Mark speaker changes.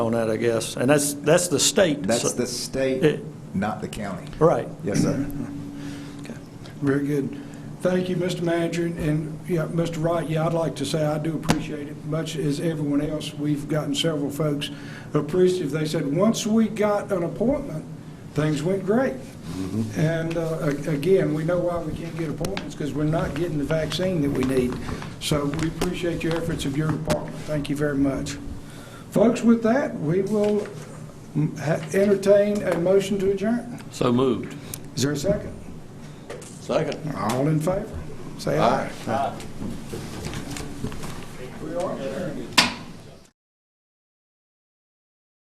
Speaker 1: on that, I guess. And that's, that's the state.
Speaker 2: That's the
Speaker 1: Eh.
Speaker 2: state, not the county.
Speaker 1: Right.
Speaker 2: Yes, sir.
Speaker 3: Very good. Thank you, Mr. Manager, and, yeah, Mr. Wright, yeah, I'd like to say I do appreciate it, much as everyone else, we've gotten several folks appreciative. They said, once we got an appointment, things went great. And uh, a- again, we know why we can't get appointments, because we're not getting the vaccine that we need. So we appreciate your efforts of your department. Thank you very much. Folks, with that, we will mm, ha- entertain a motion to adjourn.
Speaker 1: So moved.
Speaker 3: Is there a second?
Speaker 1: Second.
Speaker 3: All in favor? Say aye. We are adjourned.